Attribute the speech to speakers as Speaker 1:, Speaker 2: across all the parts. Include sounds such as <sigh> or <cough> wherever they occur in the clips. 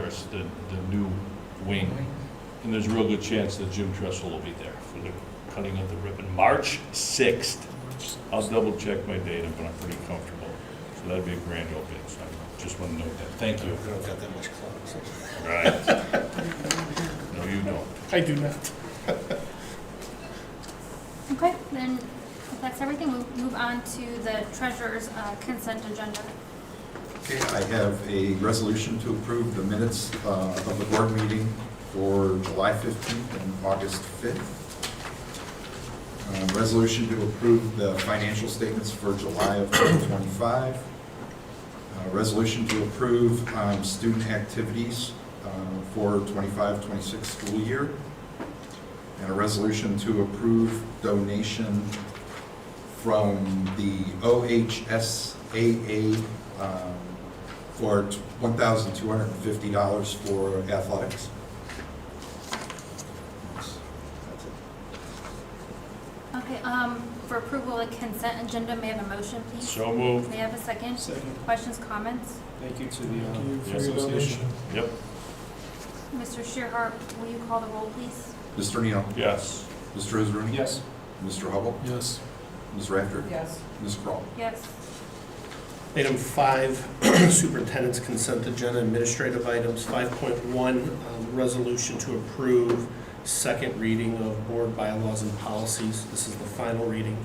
Speaker 1: Terrace, the, the new wing. And there's a real good chance that Jim Tressel will be there for the cutting of the ribbon. March 6th. I'll double check my data, but I'm pretty comfortable. So that'd be a grand opening, so I just want to note that. Thank you.
Speaker 2: We don't got that much clout.
Speaker 1: Right. No, you don't.
Speaker 3: I do not.
Speaker 4: Okay, then if that's everything, we'll move on to the treasurer's uh, consent agenda.
Speaker 5: Okay, I have a resolution to approve the minutes uh, of the board meeting for July 15th and August 5th. Uh, Resolution to approve the financial statements for July of 2025. Uh, Resolution to approve um, student activities uh, for 25, 26 school year. And a resolution to approve donation from the OHSAA um, for $1,250 for athletics. That's it.
Speaker 4: Okay, um, for approval of consent agenda, may I have a motion, please?
Speaker 1: So moved.
Speaker 4: May I have a second?
Speaker 3: Second.
Speaker 4: Questions, comments?
Speaker 2: Thank you to
Speaker 3: Thank you for
Speaker 2: the uh,
Speaker 3: your
Speaker 2: association.
Speaker 3: donation.
Speaker 1: Yep,
Speaker 4: Mr. Shearhart, will you call the roll, please?
Speaker 5: Mr. Neal?
Speaker 1: yes.
Speaker 5: Mr. Israani?
Speaker 2: Yes,
Speaker 5: Mr. Hubble?
Speaker 3: Yes.
Speaker 5: Ms. Rafter?
Speaker 6: Yes.
Speaker 5: Ms. Crawl?
Speaker 4: Yes.
Speaker 7: Item five, <clears throat> superintendent's consent agenda administrative items. Five point one, um, resolution to approve second reading of board bylaws and policies. This is the final reading.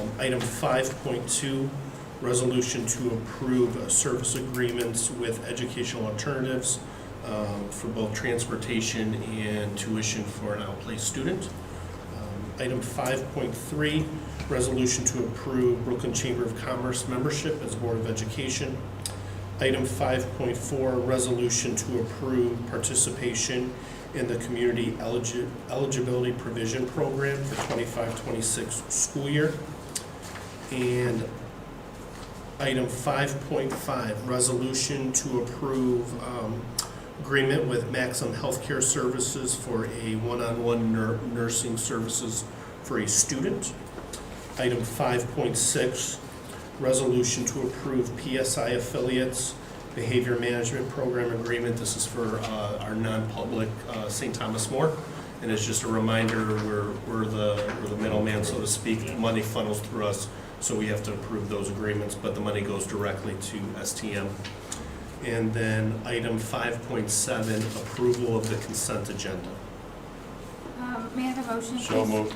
Speaker 7: Um, Item five point two, resolution to approve uh, service agreements with educational alternatives um, for both transportation and tuition for an outplaced student. Um, Item five point three, resolution to approve Brooklyn Chamber of Commerce membership as Board of Education. Item 5.4, resolution to approve participation in the Community Eligi- Eligibility Provision Program for 25-26 school year. And item 5.5, resolution to approve um, agreement with Maxim Healthcare Services for a one-on-one nur- nursing services for a student. Item 5.6, resolution to approve PSI affiliates behavior management program agreement. This is for uh, our non-public uh, St. Thomas More. And it's just a reminder, we're, we're the, we're the middleman, so to speak. Money funnels through us, so we have to approve those agreements, but the money goes directly to STM. And then item 5.7, approval of the consent agenda.
Speaker 4: Um, May I have a motion, please?
Speaker 1: So moved.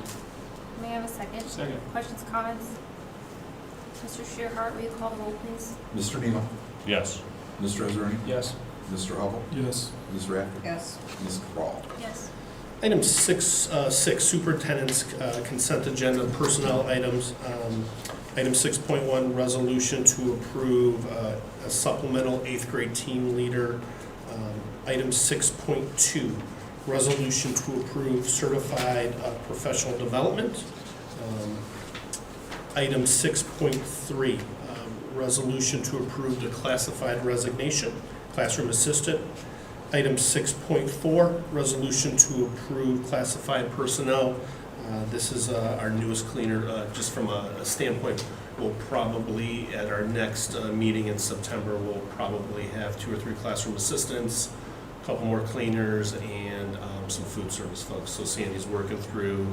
Speaker 4: May I have a second?
Speaker 2: Second.
Speaker 4: Questions, comments? Mr. Shearhart, will you call the roll, please?
Speaker 5: Mr. Neal?
Speaker 1: Yes.
Speaker 5: Mr. Israani?
Speaker 2: yes,
Speaker 5: Mr. Hubble?
Speaker 3: Yes.
Speaker 5: Ms. Rafter?
Speaker 6: Yes.
Speaker 5: Ms. Crawl?
Speaker 4: Yes.
Speaker 7: Item six, uh, six, superintendent's uh, consent agenda, personnel items. Um, Item six point one, resolution to approve uh, a supplemental eighth grade team leader. Um, Item six point two, resolution to approve certified uh, professional development. Um, Item six point three, um, resolution to approve the classified resignation, classroom assistant. Item 6.4, resolution to approve classified personnel. Uh, This is uh, our newest cleaner, uh, just from a a standpoint, we'll probably, at our next uh, meeting in September, we'll probably have two or three classroom assistants, a couple more cleaners, and um, some food service folks. So Sandy's working through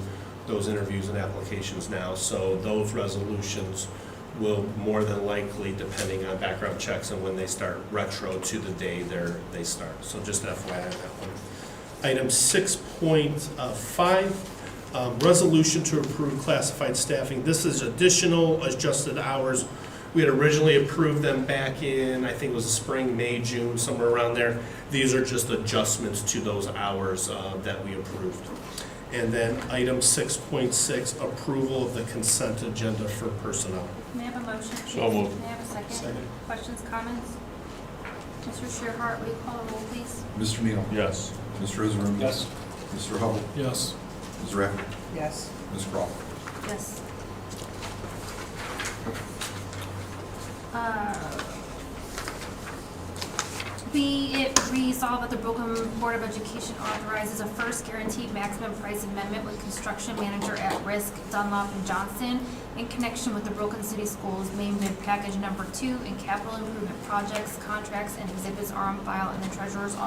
Speaker 7: those interviews and applications now. So those resolutions will more than likely, depending on background checks and when they start, retro to the day they're, they start. So just FYI on that one. Item six point uh, five, um, resolution to approve classified staffing. This is additional adjusted hours. We had originally approved them back in, I think it was spring, May, June, somewhere around there. These are just adjustments to those hours uh, that we approved. And then item six point six, approval of the consent agenda for personnel.
Speaker 4: May I have a motion, please?
Speaker 1: So moved.
Speaker 4: May I have a second?
Speaker 2: Second.
Speaker 4: Questions, comments? Mr. Shearhart, will you call the roll, please?
Speaker 5: Mr. Neal?
Speaker 1: Yes.
Speaker 5: Mr. Israani?
Speaker 2: yes,
Speaker 5: Mr. Hubble?
Speaker 3: Yes.
Speaker 5: Ms. Rafter?
Speaker 6: Yes.
Speaker 5: Ms. Crawl?
Speaker 4: Yes. Uh, Be it resolved that the Brooklyn Board of Education authorizes a first guaranteed maximum price amendment with construction manager at risk Dunlop and Johnson in connection with the Brooklyn City Schools main bid package number two and capital improvement projects, contracts, and exhibits are on file in the treasurer's